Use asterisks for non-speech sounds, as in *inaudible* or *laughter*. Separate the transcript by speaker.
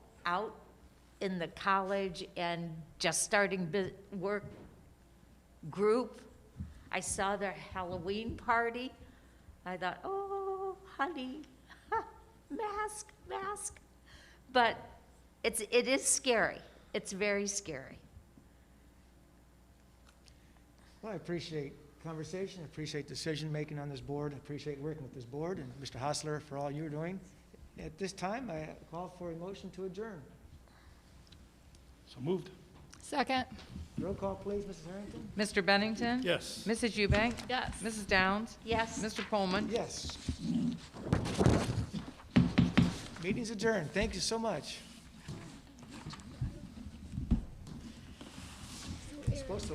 Speaker 1: out in the college and just starting bu- work group. I saw their Halloween party. I thought, oh, honey, *laughs* mask, mask. But it's, it is scary. It's very scary.
Speaker 2: Well, I appreciate conversation, I appreciate decision-making on this board, I appreciate working with this board, and Mr. Hostler for all you're doing. At this time, I call for a motion to adjourn.
Speaker 3: So moved.
Speaker 4: Second.
Speaker 2: Roll call, please, Mrs. Harrington?
Speaker 5: Mr. Bennington?
Speaker 3: Yes.
Speaker 5: Mrs. Eubank?
Speaker 4: Yes.
Speaker 5: Mrs. Downs?
Speaker 1: Yes?
Speaker 5: Mr. Coleman?
Speaker 2: Yes. Meeting's adjourned, thank you so much.